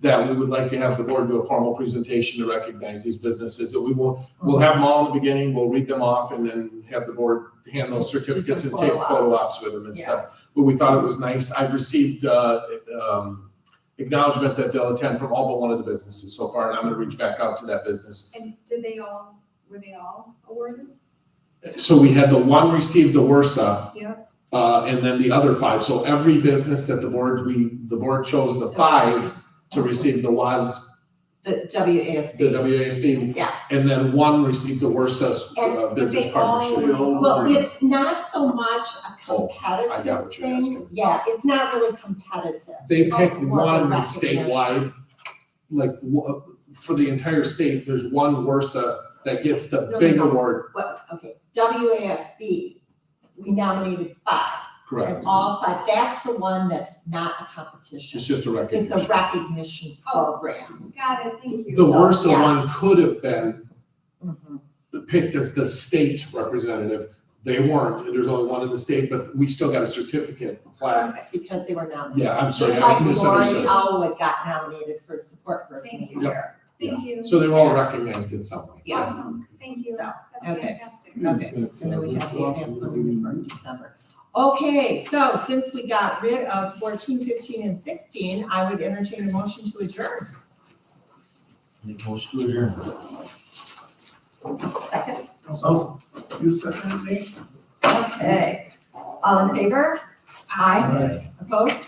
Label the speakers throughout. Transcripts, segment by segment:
Speaker 1: that we would like to have the board do a formal presentation to recognize these businesses. So we will, we'll have them all in the beginning, we'll read them off and then have the board hand those certificates and
Speaker 2: some
Speaker 1: take photo
Speaker 2: photo-ops.
Speaker 1: ops with them and stuff. But we thought it was nice. I've received, uh, um, acknowledgement that they'll attend from all but one of the businesses so far, and I'm gonna reach back out to that business.
Speaker 3: And did they all, were they all awarded?
Speaker 1: So we had the one received the Warsaw.
Speaker 3: Yeah.
Speaker 1: Uh, and then the other five. So every business that the board, we, the board chose the five to receive the WAS,
Speaker 2: The
Speaker 1: the
Speaker 2: WASB.
Speaker 1: WASB.
Speaker 2: Yeah.
Speaker 1: And then one received the Warsaw
Speaker 2: And
Speaker 1: uh, business
Speaker 3: they all-
Speaker 1: partnership.
Speaker 2: Well, it's not so much a
Speaker 1: Oh, I got
Speaker 2: competitive
Speaker 1: what you're asking.
Speaker 2: thing. Yeah, it's not really competitive.
Speaker 1: They pick
Speaker 2: That's more of
Speaker 1: one
Speaker 2: a
Speaker 1: statewide, like, wha- for the entire state, there's one Warsaw that gets the
Speaker 2: no,
Speaker 1: big
Speaker 2: no.
Speaker 1: award,
Speaker 2: Well, okay, WASB, we nominated five.
Speaker 1: correct?
Speaker 2: And all five, that's the one that's not a competition.
Speaker 1: It's just a
Speaker 2: It's
Speaker 1: recognition.
Speaker 2: a recognition program.
Speaker 3: Got it, thank you.
Speaker 1: The
Speaker 2: so,
Speaker 1: Warsaw
Speaker 2: yeah.
Speaker 1: one could have been
Speaker 2: Mhm.
Speaker 1: picked as the state representative. They weren't, and there's only one in the state, but we still got a certificate plaque.
Speaker 3: Perfect.
Speaker 2: Because they were nominated.
Speaker 1: Yeah, I'm sorry, I
Speaker 2: Mm-hmm. Just like Lori
Speaker 1: misunderstood.
Speaker 2: Elwood got nominated for support person of
Speaker 3: Thank
Speaker 2: the
Speaker 3: you.
Speaker 2: year.
Speaker 3: Thank you.
Speaker 1: So they're all recognized in some way.
Speaker 2: Yeah.
Speaker 3: Awesome, thank you.
Speaker 2: So,
Speaker 3: That's
Speaker 2: okay.
Speaker 3: fantastic.
Speaker 2: Okay, and then we have the absolutely from December. Okay, so since we got rid of fourteen, fifteen, and sixteen, I would entertain a motion to adjourn.
Speaker 4: Make motion to adjourn.
Speaker 2: Second.
Speaker 4: So, you second me?
Speaker 2: Okay, all in favor? Aye. Opposed?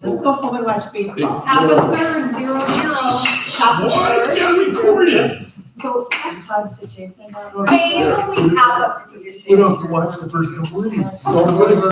Speaker 2: Let's go home and watch baseball.
Speaker 3: Top of third, zero, zero.
Speaker 2: Top of the third.
Speaker 1: recorded.
Speaker 2: So, hug the Jason.
Speaker 3: Hey, it's only top of.
Speaker 4: We don't have to watch the first couple innings.
Speaker 1: Don't worry about